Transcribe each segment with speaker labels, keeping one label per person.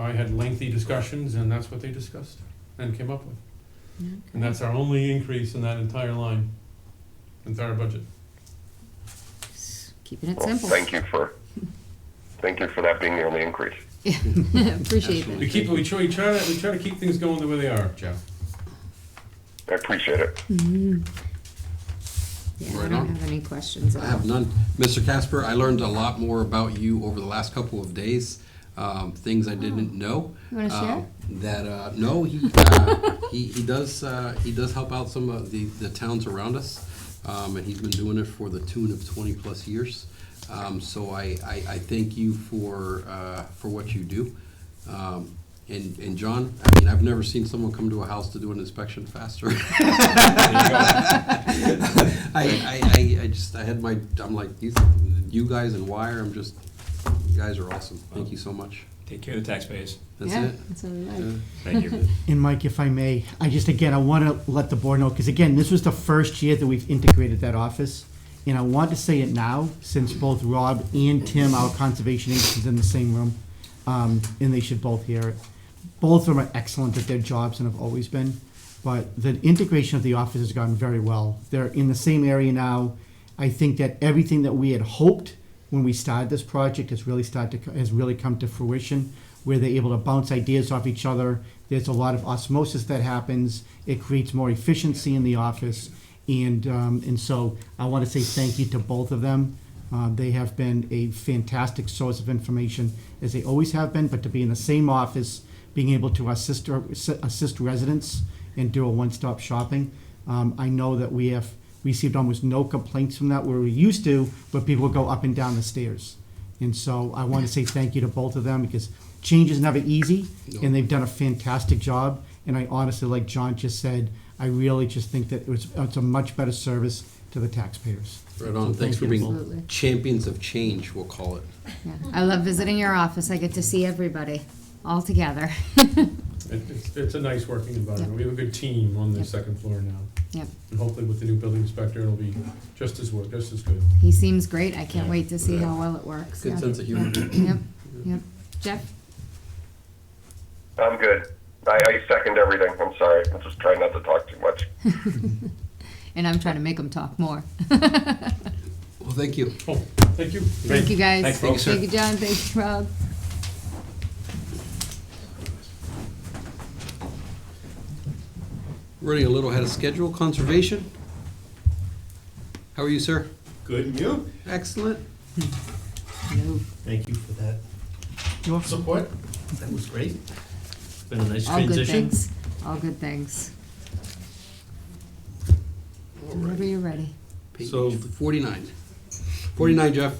Speaker 1: I had lengthy discussions, and that's what they discussed and came up with. And
Speaker 2: Okay.
Speaker 1: that's our only increase in that entire line, entire budget.
Speaker 2: Keeping it
Speaker 3: Well,
Speaker 2: simple.
Speaker 3: Oh, thank you for, thank you for that being the only increase.
Speaker 2: Yeah, appreciate
Speaker 1: We
Speaker 2: that.
Speaker 1: keep, we try, we try to, we try to keep things going the way they are, Jeff.
Speaker 3: I appreciate it.
Speaker 2: Yeah, I
Speaker 4: Right
Speaker 2: don't
Speaker 4: on.
Speaker 2: have any questions at
Speaker 4: I
Speaker 2: all.
Speaker 4: have none. Mr. Casper, I learned a lot more about you over the last couple of days, um, things I didn't know.
Speaker 2: Oh. You wanna
Speaker 4: Uh,
Speaker 2: share?
Speaker 4: That, uh, no, he, uh, he, he does, uh, he does help out some of the, the towns around us. Um, and he's been doing it for the tune of twenty-plus years. Um, so I, I, I thank you for, uh, for what you do. Um, and, and John, I mean, I've never seen someone come to a house to do an inspection faster. I, I, I, I just, I had my, I'm like, you, you guys and Wire, I'm just, you guys are awesome. Thank you so much.
Speaker 5: Take care of the taxpayers.
Speaker 4: That's
Speaker 2: Yeah,
Speaker 4: it.
Speaker 2: that's what we
Speaker 4: Yeah.
Speaker 2: like.
Speaker 5: Thank you.
Speaker 6: And Mike, if I may, I just, again, I want to let the board know, because again, this was the first year that we've integrated that office. And I want to say it now, since both Rob and Tim, our conservation agent, is in the same room, um, and they should both hear it. Both of them are excellent at their jobs and have always been, but the integration of the office has gone very well. They're in the same area now. I think that everything that we had hoped when we started this project has really started to, has really come to fruition, where they're able to bounce ideas off each other. There's a lot of osmosis that happens. It creates more efficiency in the office, and um, and so I want to say thank you to both of them. Uh, they have been a fantastic source of information, as they always have been. But to be in the same office, being able to assist uh, assist residents and do a one-stop shopping, um, I know that we have received almost no complaints from that where we used to, but people would go up and down the stairs. And so I want to say thank you to both of them because change is never easy, and they've done a fantastic job. And I honestly, like John just said, I really just think that it was, it's a much better service to the taxpayers.
Speaker 4: Right on. Thanks for
Speaker 2: Absolutely.
Speaker 4: being champions of change, we'll call it.
Speaker 2: Yeah. I love visiting your office. I get to see everybody all together.
Speaker 1: It, it's, it's a nice working environment.
Speaker 2: Yeah.
Speaker 1: We have a good team on the
Speaker 2: Yeah.
Speaker 1: second floor now.
Speaker 2: Yep.
Speaker 1: And hopefully with the new building inspector, it'll be just as work, just as good.
Speaker 2: He seems great. I can't wait to see how well it works.
Speaker 4: Good
Speaker 2: Yeah.
Speaker 4: sense of humor.
Speaker 2: Yep, yep. Jeff?
Speaker 3: I'm good. I, I second everything. I'm sorry. I'm just trying not to talk too much.
Speaker 2: And I'm trying to make him talk more.
Speaker 4: Well, thank you.
Speaker 1: Oh, thank you.
Speaker 2: Thank you, guys.
Speaker 5: Thanks, folks.
Speaker 2: Thank you, John. Thank you, Rob.
Speaker 4: Running a little ahead of schedule. Conservation? How are you, sir?
Speaker 7: Good, and you?
Speaker 4: Excellent.
Speaker 7: Thank you for that
Speaker 6: You're welcome.
Speaker 7: support. That was great. It's been a nice
Speaker 2: All good
Speaker 7: transition.
Speaker 2: things. All good things. Whenever you're ready.
Speaker 4: Page
Speaker 7: So-
Speaker 4: 49. 49, Jeff.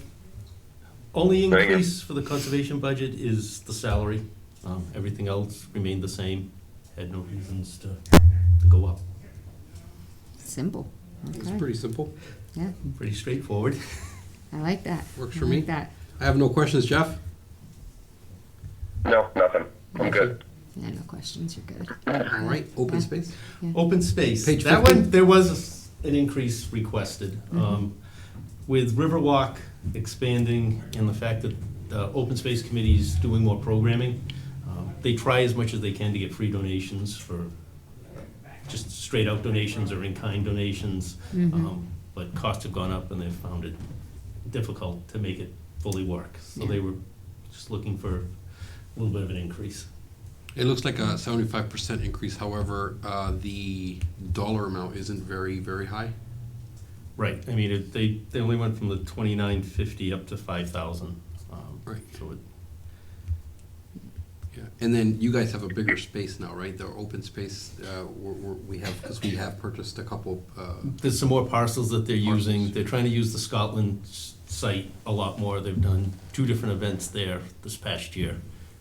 Speaker 7: Only
Speaker 3: Very good.
Speaker 7: increase for the conservation budget is the salary. Um, Everything else remained the same. Had no reasons to, to go up.
Speaker 2: Simple.
Speaker 4: It's
Speaker 2: Okay.
Speaker 4: pretty simple.
Speaker 2: Yeah,
Speaker 7: Pretty straightforward.
Speaker 2: I like that.
Speaker 4: Works
Speaker 2: I
Speaker 4: for
Speaker 2: like
Speaker 4: me.
Speaker 2: that.
Speaker 4: I have no questions, Jeff.
Speaker 3: No, nothing. I'm good.
Speaker 2: Yeah, no questions. You're good. Uh,
Speaker 4: All right, open space.
Speaker 7: Open space.
Speaker 4: Page
Speaker 7: That
Speaker 4: 15.
Speaker 7: one, there was an increase requested. Um, With Riverwalk expanding and the fact that the Open Space Committee's doing more programming, um, they try as much as they can to get free donations for just straight out donations or in-kind donations. Um, But costs have gone up and they've found it difficult to make it fully work. So they were just looking for a little bit of an increase.
Speaker 4: It looks like a 75% increase. However, uh, the dollar amount isn't very, very high.
Speaker 7: Right, I mean, it, they, they only went from the twenty-nine fifty up to five thousand. Um,
Speaker 4: Right.
Speaker 7: So it,
Speaker 4: Yeah. And then you guys have a bigger space now, right? The open space uh, we're, we're, we have, because we have purchased a couple. Uh,
Speaker 7: there's some more parcels that they're using,
Speaker 4: Parcels.
Speaker 7: they're trying to use the Scotland s- site a lot more, they've done two different events there this past year,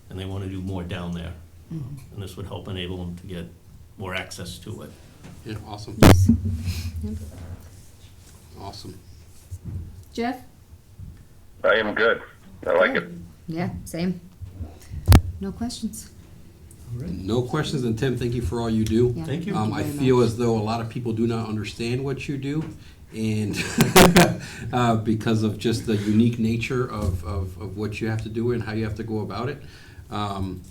Speaker 7: and they wanna do more down there.
Speaker 4: Mm-hmm.
Speaker 7: And this would help enable them to get more access to it.
Speaker 4: yeah, awesome.
Speaker 2: Yes.
Speaker 4: Awesome.
Speaker 2: Jeff?
Speaker 3: I am good. I like it.
Speaker 2: Yeah, same. No questions.
Speaker 4: No questions, and Tim, thank you for all you do.
Speaker 2: Yeah.
Speaker 7: Thank you.
Speaker 4: Um, I
Speaker 2: very
Speaker 4: feel
Speaker 2: much.
Speaker 4: as though a lot of people do not understand what you do, and uh, because of just the unique nature of, of, of what you have to do and how you have to go about it. Um,